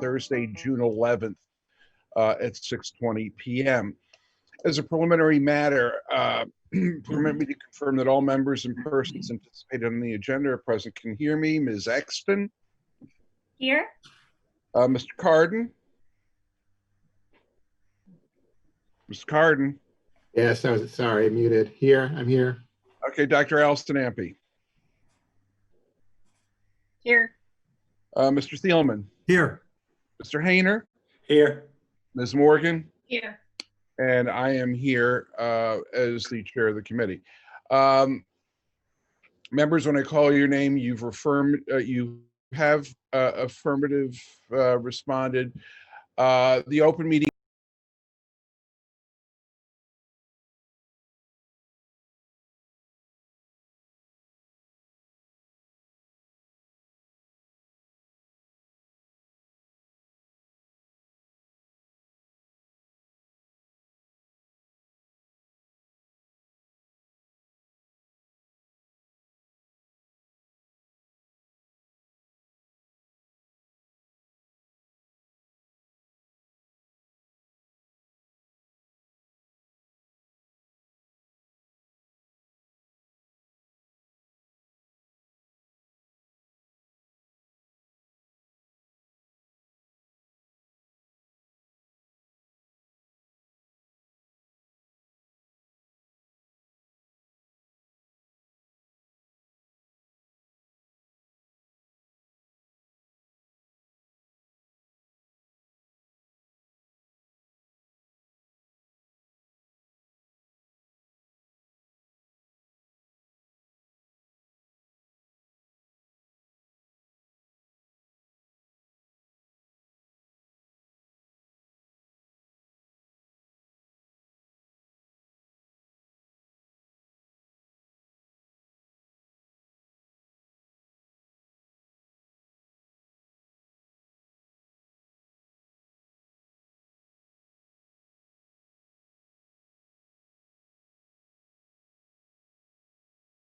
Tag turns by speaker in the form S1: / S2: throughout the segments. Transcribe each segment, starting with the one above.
S1: Thursday, June 11th uh, at 6:20 PM. As a preliminary matter, uh, permit me to confirm that all members and persons anticipated on the agenda are present can hear me. Ms. Exton,
S2: Here?
S1: uh, Mr. Carden? Mr. Carden?
S3: Yes, I was, sorry, muted. Here, I'm here.
S1: Okay, Dr. Alston Ampe,
S2: Here.
S1: uh, Mr. Thielman,
S4: Here.
S1: Mr. Hayner,
S4: Here.
S1: Ms. Morgan,
S2: Here.
S1: and I am here uh, as the chair of the committee. Um, Members, when I call your name, you've affirmed, uh, you have uh, affirmative uh, responded. Uh, The open meeting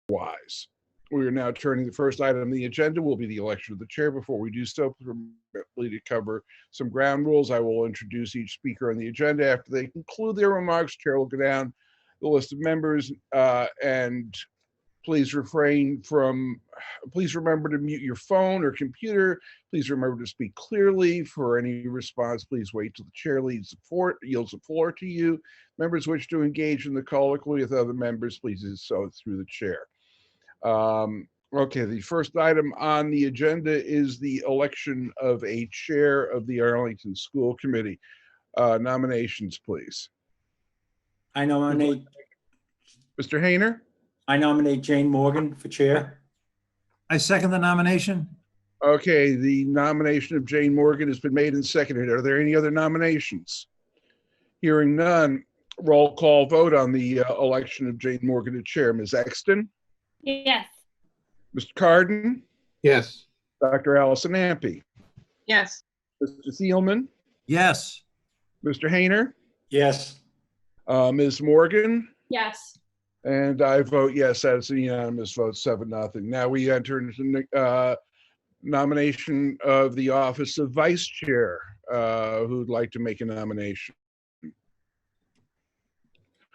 S1: wise. We are now turning the first item on the agenda will be the election of the chair. Before we do so, permit me to cover some ground rules. I will introduce each speaker on the agenda. After they conclude their remarks, chair will go down the list of members uh, and please refrain from, please remember to mute your phone or computer. Please remember to speak clearly. For any response, please wait till the chair leads the floor, yields the floor to you. Members wish to engage in the colloquy with other members, please do so through the chair. Um, okay, the first item on the agenda is the election of a chair of the Arlington School Committee. Uh, nominations, please.
S4: I nominate,
S1: Mr. Hayner,
S4: I nominate Jane Morgan for chair.
S5: I second the nomination.
S1: okay, the nomination of Jane Morgan has been made and seconded. Are there any other nominations? Hearing none, roll call vote on the uh, election of Jane Morgan to chair. Ms. Exton,
S2: Yes.
S1: Mr. Carden,
S3: Yes,
S1: Dr. Allison Ampe,
S2: Yes.
S1: Mr. Thielman,
S5: Yes,
S1: Mr. Hayner,
S4: Yes.
S1: uh, Ms. Morgan,
S2: Yes.
S1: And I vote yes, that's a unanimous vote, seven, nothing. Now we enter into uh, nomination of the office of vice chair. Uh, Who'd like to make a nomination?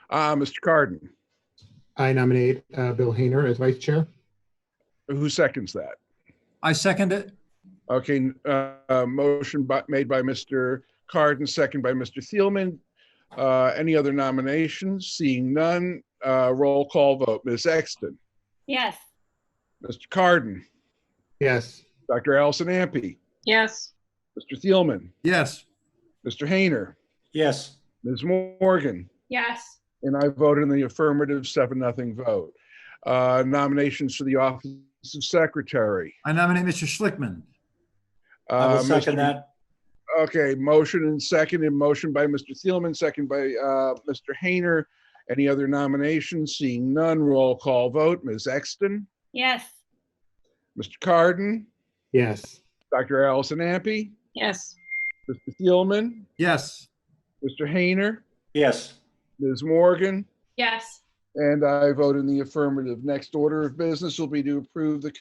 S1: Ah, Mr. Carden,
S3: I nominate uh, Bill Hayner as vice chair.
S1: who seconds that?
S5: I second it.
S1: Okay, uh, uh, motion by- made by Mr. Carden, second by Mr. Thielman. Uh, Any other nominations? Seeing none, uh, roll call vote. Ms. Exton,
S2: Yes.
S1: Mr. Carden,
S3: Yes,
S1: Dr. Allison Ampe,
S2: Yes.
S1: Mr. Thielman,
S5: Yes,
S1: Mr. Hayner,
S4: Yes.
S1: Ms. Morgan,
S2: Yes.
S1: and I voted in the affirmative, seven, nothing vote. Uh, Nominations for the office of secretary.
S5: I nominate Mr. Schlickman.
S4: I
S1: Uh,
S4: will second
S1: Mr.
S4: that.
S1: Okay, motion and second, and motion by Mr. Thielman, second by uh, Mr. Hayner. Any other nominations? Seeing none, roll call vote. Ms. Exton,
S2: Yes.
S1: Mr. Carden,
S3: yes,
S1: Dr. Allison Ampe,
S2: Yes.
S1: Mr. Thielman,
S5: Yes,
S1: Mr. Hayner,
S4: Yes.
S1: Ms. Morgan,
S2: Yes.
S1: And I vote in the affirmative. Next order of business will be to approve the